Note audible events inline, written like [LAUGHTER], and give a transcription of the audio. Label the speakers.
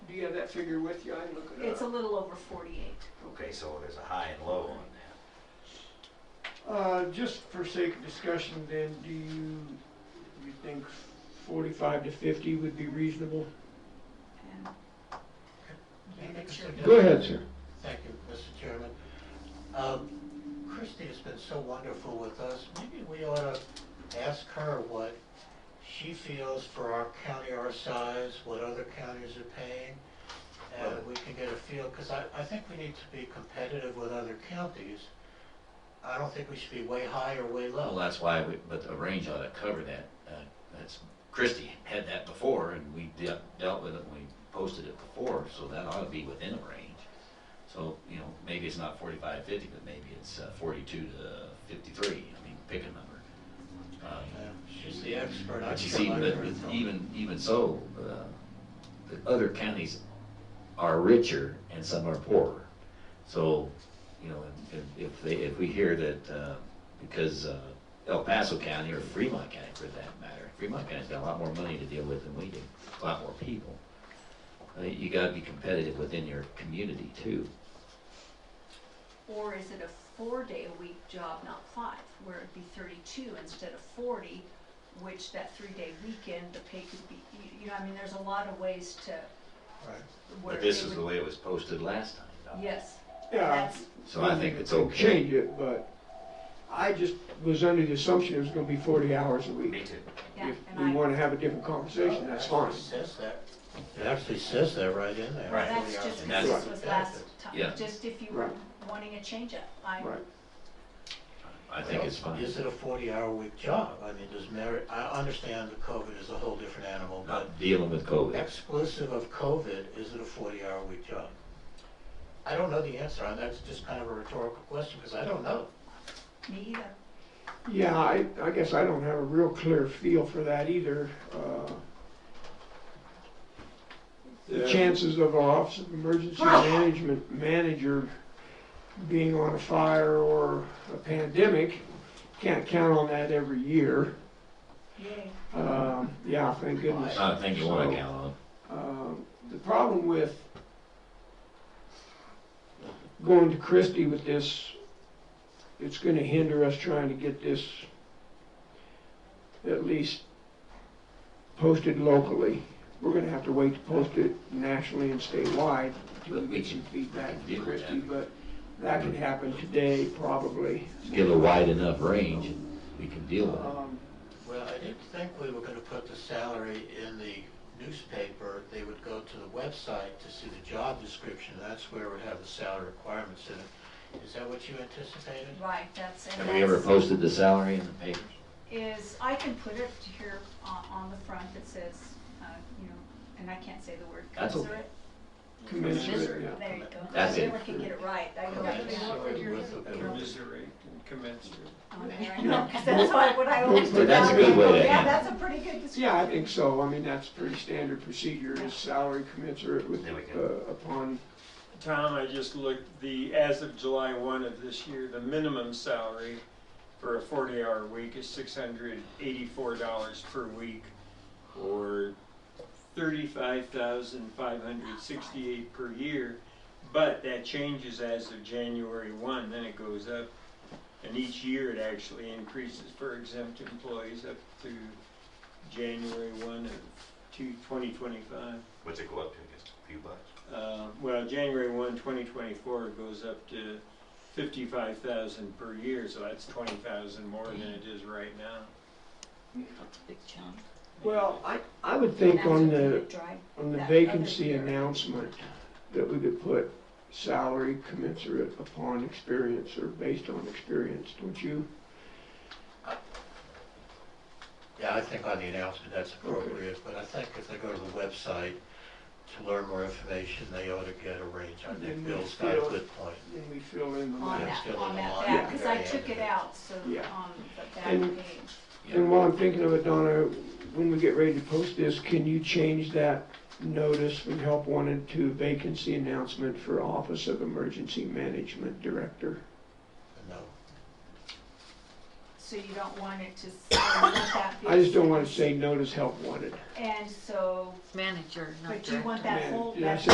Speaker 1: figure with you? I didn't look it
Speaker 2: It's a
Speaker 1: up.
Speaker 2: little over forty-eight.
Speaker 3: Okay, so there's a high and low on that.
Speaker 1: Uh, just for sake of discussion then, do you, you think forty-five to fifty would be reasonable?
Speaker 2: And
Speaker 1: Go ahead, sir.
Speaker 4: Thank you, Mr. Chairman. Um, Christie has been so wonderful with us. Maybe we ought to ask her what she feels for our county, our size, what other counties are paying. And we can get a feel, because I, I think we need to be competitive with other counties. I don't think we should be way high or way
Speaker 5: Well,
Speaker 4: low.
Speaker 5: that's why, we- but the range ought to cover that. Uh, That's, Christie had that before, and we de- dealt with it when we posted it before, so that ought to be within a range. So, you know, maybe it's not forty-five, fifty, but maybe it's uh, forty-two to fifty-three, I mean, pick a number. Uh,
Speaker 4: Yeah, She's the expert. I
Speaker 5: But you
Speaker 4: just
Speaker 5: see,
Speaker 4: like
Speaker 5: but
Speaker 4: her.
Speaker 5: even, even so, uh, the other counties are richer and some are poorer. So, you know, if, if they, if we hear that, uh, because uh, El Paso County or Fremont County for that matter, Fremont County's got a lot more money to deal with than we do, a lot more people. I mean, You gotta be competitive within your community too.
Speaker 2: Or is it a four-day-a-week job, not five, where it'd be thirty-two instead of forty, which that three-day weekend, the pay could be, you- you know, I mean, there's a lot of ways to
Speaker 4: Right.
Speaker 2: where
Speaker 5: But
Speaker 2: they
Speaker 5: this is the
Speaker 2: would.
Speaker 5: way it was posted last time.
Speaker 2: Yes,
Speaker 1: Yeah.
Speaker 2: that's,
Speaker 5: So I think it's
Speaker 1: We can
Speaker 5: okay.
Speaker 1: Change it, but I just was under the assumption it was gonna be forty hours a
Speaker 3: Me
Speaker 1: week.
Speaker 3: too.
Speaker 2: yeah,
Speaker 1: If we
Speaker 2: and I,
Speaker 1: wanna have a different conversation, that's fine.
Speaker 4: It says that. It actually says that right in there.
Speaker 5: Right.
Speaker 2: that's just, 'cause
Speaker 5: that's-
Speaker 2: this was last
Speaker 5: Yeah.
Speaker 2: time, just if you were wanting a change-up, I,
Speaker 1: Right.
Speaker 5: I think it's fine.
Speaker 4: Is it a forty-hour week job? I mean, does merit, I understand that COVID is a whole different animal, but
Speaker 5: Not dealing with COVID.
Speaker 4: exclusive of COVID, is it a forty-hour week job? I don't know the answer, and that's just kind of a rhetorical question, because I don't know.
Speaker 2: me either.
Speaker 1: Yeah, I, I guess I don't have a real clear feel for that either. Uh, The chances of our Office of Emergency Management manager being on a fire or a pandemic, can't count on that every year.
Speaker 2: Yay.
Speaker 1: Um, Yeah, thank goodness.
Speaker 5: I think you wanna
Speaker 1: So-
Speaker 5: count on.
Speaker 1: Um, The problem with going to Christie with this, it's gonna hinder us trying to get this at least posted locally. We're gonna have to wait to post it nationally and statewide until we get some feedback
Speaker 5: But
Speaker 1: from
Speaker 5: we can- we can
Speaker 1: Christie,
Speaker 5: deal
Speaker 1: but that could happen today, probably.
Speaker 5: give a wide enough range, and we can deal with it.
Speaker 1: Um,
Speaker 4: Well, I didn't think we were gonna put the salary in the newspaper. They would go to the website to see the job description. That's where it would have the salary requirements in it. Is that what you anticipated?
Speaker 2: Right, that's, and that's.
Speaker 5: Have we ever posted the salary in the papers?
Speaker 2: is, I can put it here on, on the front that says, uh, you know, and I can't say the word
Speaker 5: That's okay.
Speaker 2: commensurate.
Speaker 1: Commensurate, yeah.
Speaker 2: There you go.
Speaker 5: That's it.
Speaker 2: Everyone can get it right. I go back to
Speaker 1: [LAUGHS]
Speaker 2: work.
Speaker 6: Commiserate and commensurate.
Speaker 2: on there. I know, 'cause That's what, what I always do.
Speaker 5: That's a
Speaker 2: now.
Speaker 5: good way to
Speaker 2: Yeah,
Speaker 5: handle
Speaker 2: that's a pretty good description.
Speaker 1: Yeah, I think so. I mean, that's pretty standard procedure, is salary commensurate with,
Speaker 3: There we
Speaker 1: uh,
Speaker 3: go.
Speaker 1: upon
Speaker 6: Tom, I just looked, the, as of July 1 of this year, the minimum salary for a 40-hour week is $684 per week, or 35,568 per year, but that changes as of January 1, then it goes up, and each year it actually increases for exempt employees up to January 1 of two- 2025.
Speaker 3: What's it go up to, just a few bucks?
Speaker 6: Uh, well, January 1, 2024 it goes up to 55,000 per year, so that's 20,000 more than it is right now.
Speaker 1: Well, I, I would think on the, on the
Speaker 2: That other
Speaker 1: vacancy
Speaker 2: year.
Speaker 1: announcement, that we could put salary commensurate upon experience or based on experience, don't you?
Speaker 4: Yeah, I think on the announcement, that's appropriate, but I think if they go to the website to learn more information, they ought to get a range. I think Bill's got a good point.
Speaker 1: And we fill in the
Speaker 2: On
Speaker 1: line.
Speaker 2: that,
Speaker 4: still
Speaker 2: on
Speaker 4: in
Speaker 2: that
Speaker 4: line.
Speaker 2: back, because I
Speaker 4: Yeah.
Speaker 2: took it out, so
Speaker 1: Yeah.
Speaker 2: on the back
Speaker 1: And-
Speaker 2: page.
Speaker 1: And while I'm thinking of it, Donna, when we get ready to post this, can you change that notice from help wanted to vacancy announcement for Office of Emergency Management Director?
Speaker 4: No,
Speaker 2: So you don't want it to, s- [COUGHS] let that be.
Speaker 1: I just don't wanna say notice help wanted.
Speaker 2: And so,
Speaker 7: Manager, not
Speaker 2: but you want
Speaker 7: director.
Speaker 2: that whole,
Speaker 1: Yeah,
Speaker 2: that
Speaker 1: so